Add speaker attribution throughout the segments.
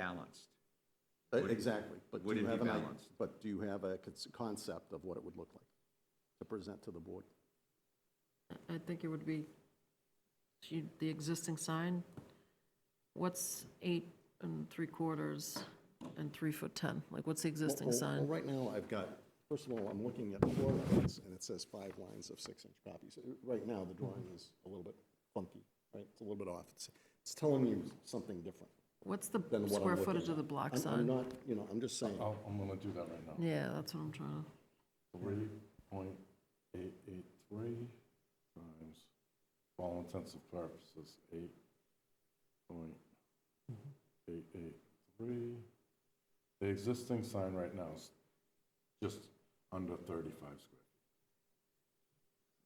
Speaker 1: balanced.
Speaker 2: Uh,
Speaker 1: Would it-
Speaker 2: Exactly, but
Speaker 1: would
Speaker 2: do you
Speaker 1: it be
Speaker 2: have an, i-
Speaker 1: balanced?
Speaker 2: but do you have a cons- concept of what it would look like to present to the board?
Speaker 3: I think it would be she- the existing sign. What's eight and three quarters and three foot 10? Like, what's the existing
Speaker 2: Well, well,
Speaker 3: sign?
Speaker 2: Well, right now, I've got, first of all, I'm looking at four lines, and it says five lines of six-inch copies. Uh, Right now, the drawing is a little bit funky, right? It's a little bit off. It's, it's telling me something different
Speaker 3: What's the
Speaker 2: than what I'm looking
Speaker 3: square
Speaker 2: at.
Speaker 3: footage of the block
Speaker 2: I'm- I'm
Speaker 3: sign?
Speaker 2: not, you know, I'm just saying,
Speaker 4: I'll- Oh, I'm gonna do that right now.
Speaker 3: Yeah, that's what I'm trying to,
Speaker 4: Three point eight eight three times, for all intents and purposes, eight point eight eight three. The existing sign right now is just under thirty-five square.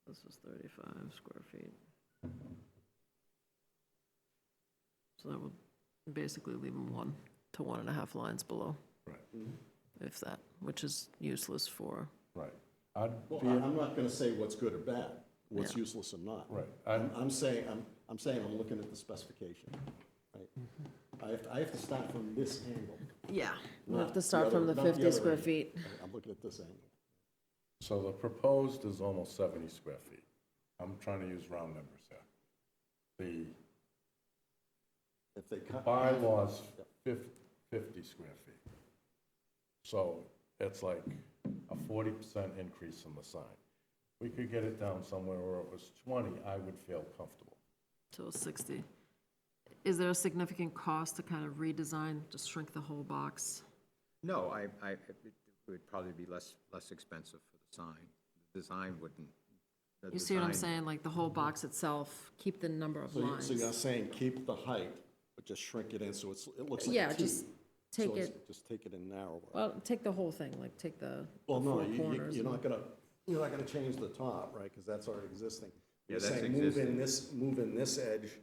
Speaker 3: this is 35 square feet. So that would basically leave them one to one and a half lines below,
Speaker 4: Right.
Speaker 3: if that, which is useless for,
Speaker 4: Right. I'd
Speaker 2: well,
Speaker 4: be,
Speaker 2: I- I'm not gonna say what's good or bad, what's
Speaker 3: Yeah.
Speaker 2: useless and not.
Speaker 4: right,
Speaker 2: I'm,
Speaker 4: I'm,
Speaker 2: I'm saying, I'm, I'm saying I'm looking at the specification, right? I have, to- I have to start from this angle.
Speaker 3: yeah. We
Speaker 2: Not
Speaker 3: have to
Speaker 2: the
Speaker 3: start from
Speaker 2: other-
Speaker 3: the
Speaker 2: not the
Speaker 3: 50
Speaker 2: other
Speaker 3: square
Speaker 2: end.
Speaker 3: feet.
Speaker 2: I- I'm looking at this angle.
Speaker 4: so the proposed is almost seventy square feet. I'm trying to use round numbers here. The
Speaker 2: If they cut.
Speaker 4: bylaws fif- 50 square feet. So it's like a 40% increase in the sign. We could get it down somewhere where it was 20, I would feel comfortable.
Speaker 3: So 60. Is there a significant cost to kind of redesign, just shrink the whole box?
Speaker 1: No, I, I, it would probably be less, less expensive for the sign. The design wouldn't. the
Speaker 3: You see what I'm
Speaker 1: design- Mm-hmm.
Speaker 3: saying, like the whole box itself, keep the number of
Speaker 2: So you-
Speaker 3: lines?
Speaker 2: so you're saying keep the height, but just shrink it in so it's, it looks like
Speaker 3: Yeah,
Speaker 2: a T.
Speaker 3: just
Speaker 2: So
Speaker 3: take
Speaker 2: it's-
Speaker 3: it,
Speaker 2: Just take it in narrower.
Speaker 3: well, take the whole thing, like take the the
Speaker 2: Well, no,
Speaker 3: four
Speaker 2: you- you,
Speaker 3: corners.
Speaker 2: you're not gonna, you're not gonna change the top, right, because that's already existing.
Speaker 1: Yeah,
Speaker 2: You're
Speaker 1: that's
Speaker 2: saying move in
Speaker 1: existing.
Speaker 2: this, move in this edge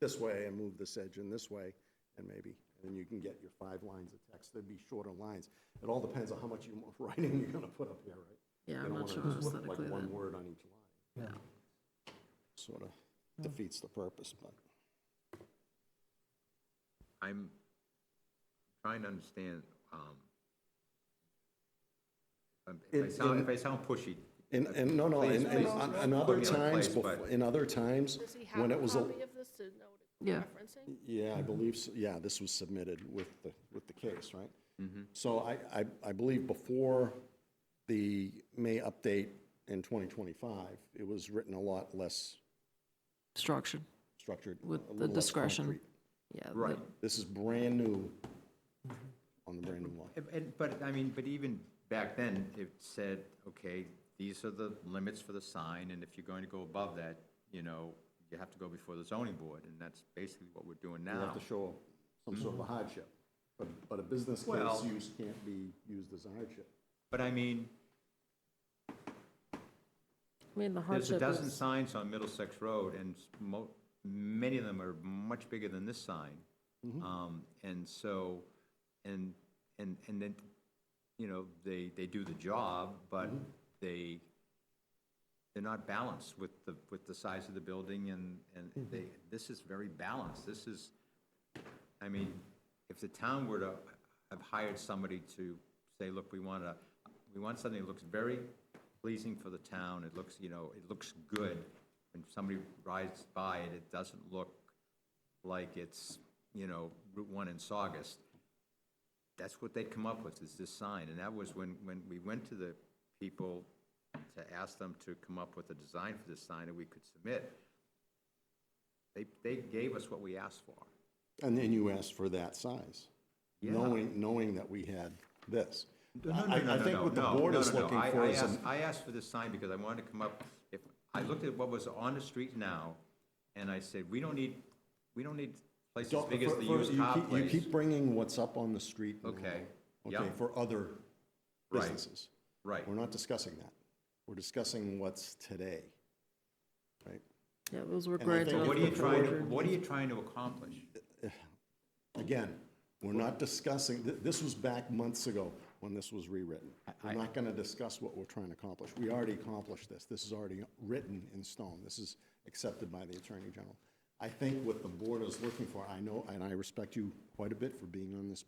Speaker 2: this way and move this edge in this way, and maybe, and then you can get your five lines of text, there'd be shorter lines. It all depends on how much you, writing you're gonna put up here, right?
Speaker 3: Yeah,
Speaker 2: You
Speaker 3: I'm
Speaker 2: don't
Speaker 3: not
Speaker 2: wanna
Speaker 3: sure
Speaker 2: just look like
Speaker 3: aesthetically
Speaker 2: One
Speaker 3: that,
Speaker 2: word on each line.
Speaker 3: yeah.
Speaker 2: Sort of defeats the purpose, but.
Speaker 1: I'm trying to understand, um, um, if I
Speaker 2: In-
Speaker 1: sound,
Speaker 2: in-
Speaker 1: if I sound pushy,
Speaker 2: And, and, no, no, and,
Speaker 1: Please,
Speaker 2: and on-
Speaker 1: please
Speaker 2: and
Speaker 1: put
Speaker 2: other
Speaker 1: me in a
Speaker 2: times,
Speaker 1: place, but-
Speaker 2: befo- in other times,
Speaker 5: Does he have
Speaker 2: when
Speaker 5: a
Speaker 2: it was, a-
Speaker 5: copy of this to know what
Speaker 3: Yeah.
Speaker 5: it's referencing?
Speaker 2: yeah, I believe, so- yeah, this was submitted with the, with the case, right? So I, I, I believe before the May update in 2025, it was written a lot less
Speaker 3: Structured,
Speaker 2: structured.
Speaker 3: With
Speaker 2: a
Speaker 3: the
Speaker 2: little less
Speaker 3: discretion.
Speaker 2: concrete.
Speaker 3: yeah. the-
Speaker 1: right.
Speaker 2: This is brand new
Speaker 3: Mm-hmm.
Speaker 2: on the brand new law.
Speaker 1: And- And, but, I mean, but even back then, it said, okay, these are the limits for the sign, and if you're going to go above that, you know, you have to go before the zoning board, and that's basically what we're doing
Speaker 2: You have
Speaker 1: now.
Speaker 2: to show some sort of a hardship, but, but a business case
Speaker 1: Well-
Speaker 2: use can't be used as a hardship.
Speaker 1: But I mean,
Speaker 3: I mean, the
Speaker 1: there's a
Speaker 3: hardship
Speaker 1: dozen
Speaker 3: is,
Speaker 1: signs on Middlesex Road, and s- mo, many of them are much bigger than this sign.
Speaker 3: Mm-hmm.
Speaker 1: Um, and so, and, and, and then, you know, they, they do the job, but
Speaker 3: Mm-hmm.
Speaker 1: they, they're not balanced with the, with the size of the building, and,
Speaker 3: Mm-hmm.
Speaker 1: and they, this is very balanced, this is, I mean, if the town were to have hired somebody to say, look, we want to, we want something that looks very pleasing for the town, it looks, you know, it looks good. When somebody rides by it, it doesn't look like it's, you know, Route One in Saugus. That's what they'd come up with, is this sign, and that was when, when we went to the people to ask them to come up with a design for this sign that we could submit. They, they gave us what we asked for.
Speaker 2: And then you asked for that size,
Speaker 1: Yeah.
Speaker 2: knowing, knowing that we had this.
Speaker 1: No, no,
Speaker 2: I-
Speaker 1: no,
Speaker 2: I
Speaker 1: no,
Speaker 2: think
Speaker 1: no,
Speaker 2: what the
Speaker 1: no,
Speaker 2: board
Speaker 1: no,
Speaker 2: is
Speaker 1: no, no.
Speaker 2: looking
Speaker 1: I-
Speaker 2: for
Speaker 1: I
Speaker 2: is a-
Speaker 1: asked- I asked for this sign because I wanted to come up, if, I looked at what was on the street now, and I said, we don't need, we don't need places as
Speaker 2: Don't-
Speaker 1: big as
Speaker 2: for-
Speaker 1: the
Speaker 2: for-
Speaker 1: used
Speaker 2: you
Speaker 1: car
Speaker 2: keep- You
Speaker 1: place.
Speaker 2: keep bringing what's up on the street now,
Speaker 1: Okay,
Speaker 2: Okay,
Speaker 1: yeah.
Speaker 2: for other
Speaker 1: Right.
Speaker 2: businesses.
Speaker 1: Right,
Speaker 2: We're not discussing that. We're discussing what's today, right?
Speaker 3: yeah, those were
Speaker 2: I
Speaker 3: grades.
Speaker 2: think-
Speaker 3: off
Speaker 1: what are you
Speaker 3: the
Speaker 1: trying, to-
Speaker 3: border.
Speaker 1: what are you trying to accomplish?
Speaker 2: Again, we're not discussing, th- this was back months ago when this was rewritten. We're not going to discuss what we're trying to accomplish. We already accomplished this. This is already written in stone. This is accepted by the Attorney General. I- I think what the board is looking for, I know, and I respect you quite a bit for being on this